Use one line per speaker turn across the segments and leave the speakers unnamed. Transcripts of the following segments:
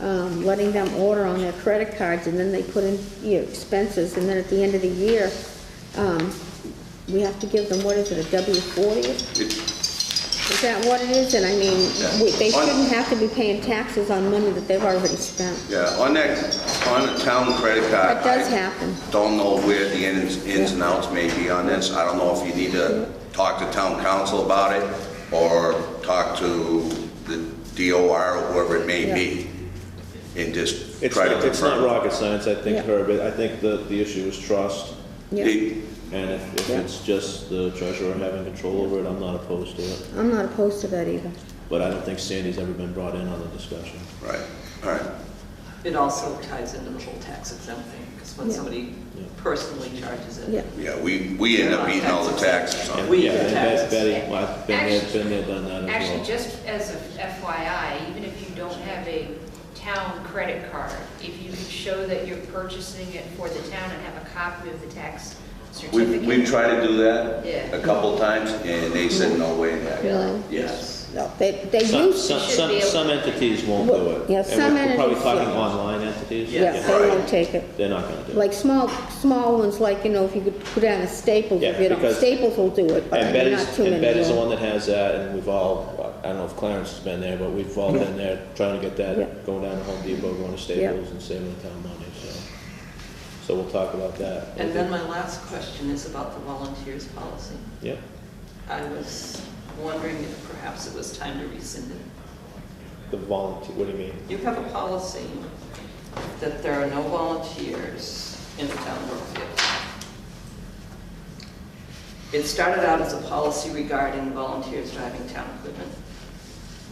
um, letting them order on their credit cards, and then they put in your expenses, and then at the end of the year, um, we have to give them, what is it, a W-40?
It-
Is that what it is? And I mean,
Yeah.
we- they
On-
shouldn't have to be paying taxes on money that they've already spent.
Yeah, on that, on a town credit card.
That does
I
happen.
Don't know where the ins, ins and outs may be on this. I don't know if you need to talk to town council about it or talk to the DOR or whoever it may be and just
It's
try to
not, it's not
confirm.
rocket science, I think,
Yeah.
Herb. I think the, the issue is trust.
Yeah,
It-
And if, if
Yeah.
it's just the treasurer having control over it, I'm not opposed to it.
I'm not opposed to that either.
But I don't think Sandy's ever been brought in on the discussion.
Right, all right.
It also ties into the whole tax exempt thing, because when
Yeah.
somebody
Yeah.
personally charges it.
Yeah.
Yeah, we, we end up eating all the taxes on it.
We
Yeah,
get
and
taxes.
Betty, I've been there, been there, done that as well.
Actually, just as a FYI, even if you don't have a town credit card, if you can show that you're purchasing it for the town and have a copy of the tax
We've,
certificate.
we've tried to do that
Yeah.
a couple times and they said, no way in heck.
Really?
Yes.
No, they, they
Some,
used,
some,
should be
some,
able-
some entities won't do it.
Yeah,
And we're-
some
we're Probably
entities,
talking
yeah.
online entities.
yeah,
Yeah.
they won't take it.
They're not gonna do it.
Like small, small ones, like, you know, if you could put down a Staples, if
Yeah,
you don't,
because-
Staples will do it, but I
And
mean, not
Betty's,
too many.
and Betty's the
will.
one that has that, and we've all, I don't know if Clarence has been there, but we've all been there trying to get
Yeah.
that, going down to Home Depot, going to
Yeah.
Staples and saving the town money, so. So we'll talk about that.
And then my last question is about the volunteers policy.
Yeah,
I was wondering if perhaps it was time to rescind it.
the volunteer, what do you mean?
You have a policy that there are no volunteers in the town of Brookfield. It started out as a policy regarding volunteers driving town equipment,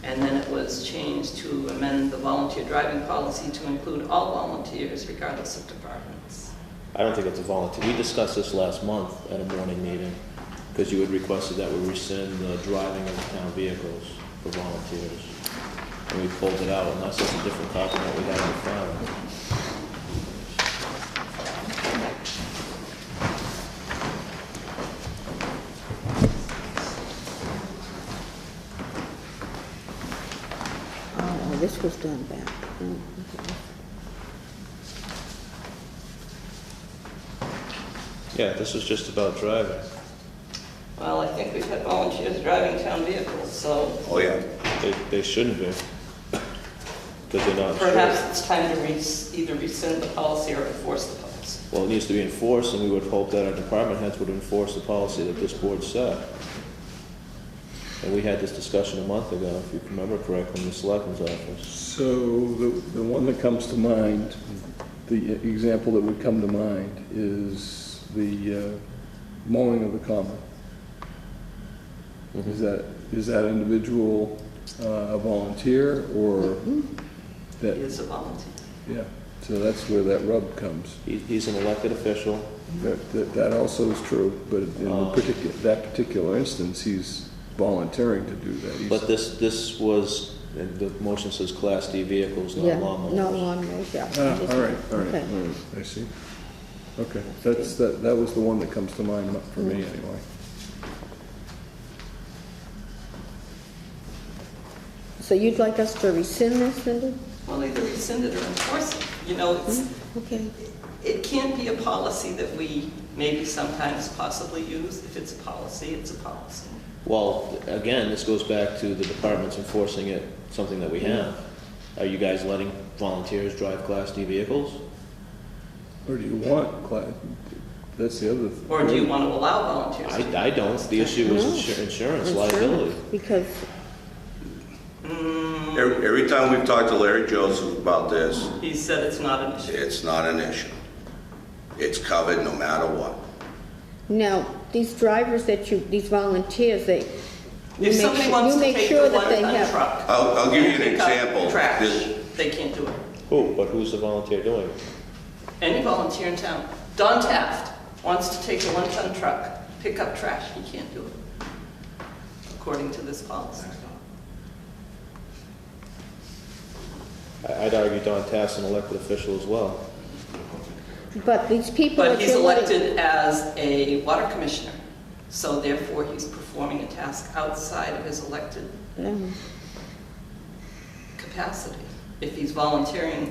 and then it was changed to amend the volunteer driving policy to include all volunteers regardless of departments.
I don't think it's a volunteer, we discussed this last month at a morning meeting, because you had requested that we rescind the driving of the town vehicles for volunteers. And we pulled it out, and that's just a different copy than what we had in the file.
Oh, this was done back. Mm, okay.
Yeah, this was just about driving.
Well, I think we've had volunteers driving town vehicles, so
Oh, yeah.
They, they shouldn't be. Because they're not
perhaps
insured.
it's time to res- either rescind the policy or enforce the policy.
Well, it needs to be enforced, and we would hope that our department heads would enforce the policy that this board set. And we had this discussion a month ago, if you remember correctly, in the selectmen's office.
So the, the one that comes to mind, the example that would come to mind is the uh, mowing of the common. Is that, is that individual uh, a volunteer or
It
that,
is a volunteer.
yeah, so that's where that rub comes.
He, he's an elected official,
That, that- that also is true, but in the
Um.
particular, that particular instance, he's volunteering to do that. He's-
but this, this was, and the motion says Class D vehicles, not
Yeah,
lawnmowers.
not lawnmowers, yeah.
Ah, all right, all right,
Okay.
all right, I see. Okay, that's, that, that was the one that comes to mind for me anyway.
So you'd like us to rescind this, Cindy?
Well, either rescind it or enforce it. You know, it's,
Okay.
it can't be a policy that we maybe sometimes possibly use. If it's a policy, it's a policy.
Well, again, this goes back to the departments enforcing it, something that we have. Are you guys letting volunteers drive Class D vehicles?
Or do you want, Cla- that's the other.
Or do you want to allow volunteers? to-
I, I don't, the issue was
No.
insur- insurance
Insurance,
liability.
Because,
Every every time we've talked to Larry Joseph about this,
He said it's not an issue.
it's not an issue. It's covered no matter what.
now, these drivers that you, these volunteers, they, you
If
make
somebody
sure,
wants
you
to
make
take
sure
the
that they
one-ton
have.
truck.
I'll, I'll give you an
and pick up
example.
Trash,
This-
they can't do it.
Who, but who's the volunteer doing it?
Any volunteer in town, Don Taft wants to take a one-ton truck, pick up trash, he can't do it, according to this policy.
I- I'd argue Don Taft's an elected official as well.
But these people
But
that
he's
you're letting-
elected as a water commissioner, so therefore he's performing a task outside of his elected
Yeah.
capacity. if he's volunteering